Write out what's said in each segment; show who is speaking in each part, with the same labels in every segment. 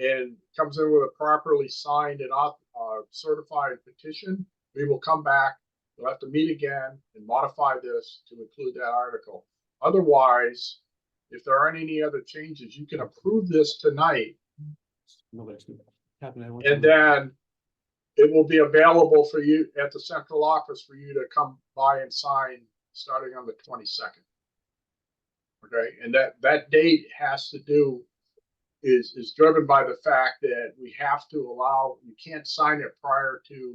Speaker 1: and comes in with a properly signed and auth- uh, certified petition, we will come back, we'll have to meet again and modify this to include that article. Otherwise, if there aren't any other changes, you can approve this tonight
Speaker 2: Nobody's gonna happen. I want
Speaker 1: and uh,
Speaker 2: to-
Speaker 1: then it will be available for you at the central office for you to come by and sign starting on the twenty-second. Okay, and that, that date has to do, is, is driven by the fact that we have to allow, you can't sign it prior to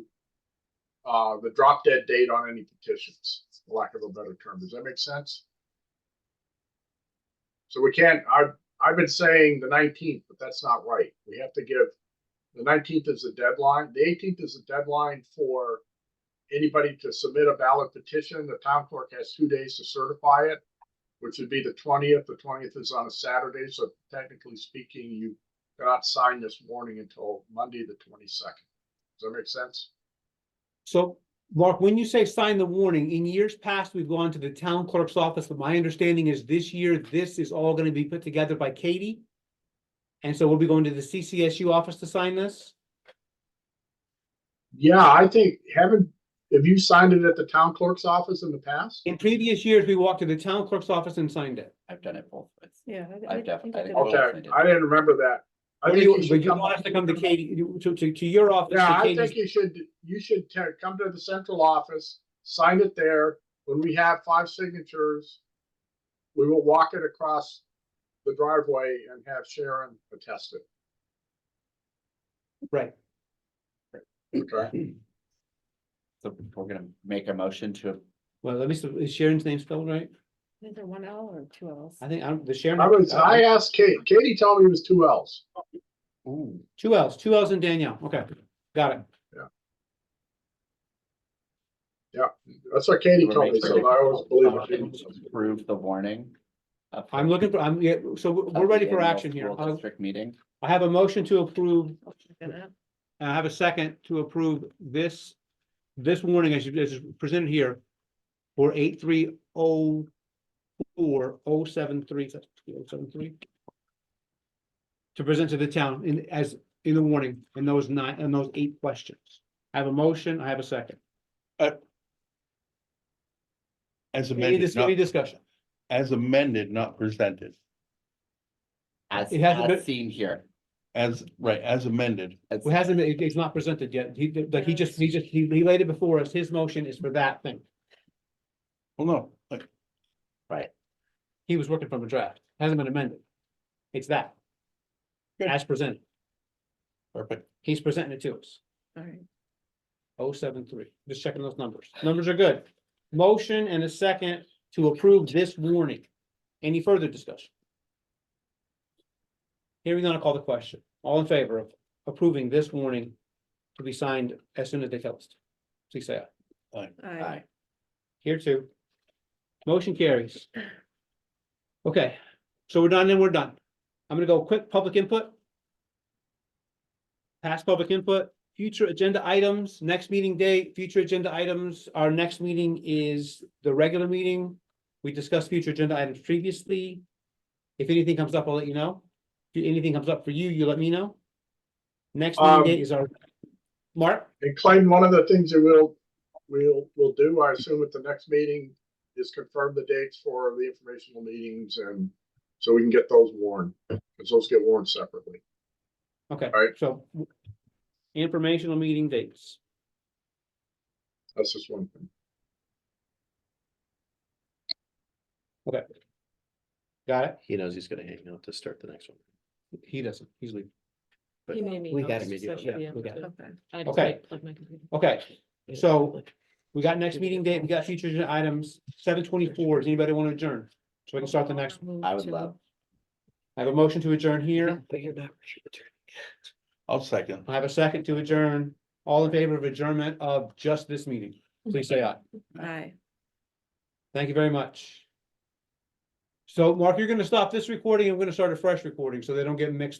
Speaker 1: uh, the drop dead date on any petitions, for lack of a better term. Does that make sense? So we can't, I've, I've been saying the nineteenth, but that's not right. We have to give the nineteenth is the deadline. The eighteenth is the deadline for anybody to submit a ballot petition. The town clerk has two days to certify it, which would be the twentieth. The twentieth is on a Saturday, so technically speaking, you cannot sign this warning until Monday, the twenty-second. Does that make sense?
Speaker 2: So, Mark, when you say sign the warning, in years past, we've gone to the town clerk's office, but my understanding is this year, this is all gonna be put together by Katie. And so we'll be going to the CCSU office to sign this?
Speaker 1: Yeah, I think, haven't, have you signed it at the town clerk's office in the past?
Speaker 2: In previous years, we walked to the town clerk's office and signed it.
Speaker 3: I've done it both. ways.
Speaker 4: Yeah. I-
Speaker 3: I've
Speaker 4: I
Speaker 3: def-
Speaker 4: think
Speaker 3: I
Speaker 4: I
Speaker 3: think
Speaker 4: did.
Speaker 3: both.
Speaker 4: it.
Speaker 1: Okay, I didn't remember that. I
Speaker 2: What do
Speaker 1: think
Speaker 2: you,
Speaker 1: should
Speaker 2: but you
Speaker 1: come
Speaker 2: want us
Speaker 1: up-
Speaker 2: to come to Katie, to, to, to your office? to
Speaker 1: Yeah, I
Speaker 2: Katie's-
Speaker 1: think you should, you should te- come to the central office, sign it there. When we have five signatures, we will walk it across the driveway and have Sharon attest it.
Speaker 2: Right,
Speaker 1: Okay.
Speaker 3: So we're gonna make a motion to,
Speaker 2: well, let me, see, is Sharon's name spelled right?
Speaker 4: Is it one L or two Ls?
Speaker 2: I think, I'm, the Sharon.
Speaker 1: I was, I asked Kate, Katie told me it was two Ls.
Speaker 3: ooh,
Speaker 2: Two L's, two L's and Danielle, okay, got it.
Speaker 1: That's what Katie
Speaker 3: We're
Speaker 1: told me, so
Speaker 3: making-
Speaker 1: I always believe it.
Speaker 3: approve the warning. of-
Speaker 2: I'm looking for, I'm, yeah, so we're,
Speaker 3: of
Speaker 2: we're ready
Speaker 3: the
Speaker 2: for
Speaker 3: annual
Speaker 2: action here. Uh,
Speaker 3: school
Speaker 2: I'll-
Speaker 3: District meeting.
Speaker 2: I have a motion to approve,
Speaker 4: Gonna-
Speaker 2: I have a second to approve this, this warning as you, as is presented here for eight three oh four oh seven three, oh seven three. To present to the town in, as, in the warning, in those nine, in those eight questions. I have a motion, I have a second.
Speaker 5: As
Speaker 2: Any,
Speaker 5: amended,
Speaker 2: dis- any
Speaker 5: not,
Speaker 2: discussion?
Speaker 5: as amended, not presented,
Speaker 3: As,
Speaker 2: It hasn't been-
Speaker 3: as seen here.
Speaker 5: as, right, as amended.
Speaker 3: As-
Speaker 2: It hasn't, been- it- it's not presented yet. He, like, he just, he just, he he laid it before us. His motion is for that thing.
Speaker 5: Well, no, like,
Speaker 2: He was working from a draft, hasn't been amended. It's that.
Speaker 5: Good.
Speaker 2: As presented,
Speaker 5: perfect.
Speaker 2: he's presenting it to us,
Speaker 4: all right.
Speaker 2: oh seven three, just checking those numbers, numbers are good. Motion and a second to approve this warning. Any further discussion? Hearing none, I'll call the question, all in favor of approving this warning to be signed as soon as they tell us. to? Please say aye.
Speaker 4: I-
Speaker 2: Here too. Motion carries. Okay, so we're done and we're done. I'm gonna go quick public input. Past public input, future agenda items, next meeting date, future agenda items. Our next meeting is the regular meeting. We discussed future agenda items previously. If anything comes up, I'll let you know. If anything comes up for you, you let me know. Next meeting
Speaker 1: Um,
Speaker 2: date is our, Mark?
Speaker 1: And Clayton, one of the things that we'll, we'll, we'll do, I assume at the next meeting, is confirm the dates for the informational meetings and so we can get those warned, because those get warned separately.
Speaker 2: Okay,
Speaker 1: Alright.
Speaker 2: so informational meeting dates.
Speaker 1: That's just one thing.
Speaker 2: Got it?
Speaker 6: He knows he's gonna hang out to start the next one.
Speaker 2: He doesn't, he's leaving.
Speaker 6: But
Speaker 4: You may need
Speaker 2: we
Speaker 4: help,
Speaker 2: got
Speaker 6: it,
Speaker 4: so
Speaker 6: yeah,
Speaker 4: should be
Speaker 2: yeah, we got it.
Speaker 4: okay.
Speaker 2: Okay. Okay, so we got next meeting date, we got future agenda items, seven twenty-four. Does anybody want to adjourn? So we can start the next.
Speaker 4: Move
Speaker 3: I would
Speaker 4: to-
Speaker 3: love-
Speaker 2: I have a motion to adjourn here.
Speaker 6: But you're not returning.
Speaker 5: I'll second.
Speaker 2: I have a second to adjourn. All in favor of adjournment of just this meeting, please say aye.
Speaker 4: Aye.
Speaker 2: Thank you very much. So Mark, you're gonna stop this recording. I'm gonna start a fresh recording so they don't get mixed up.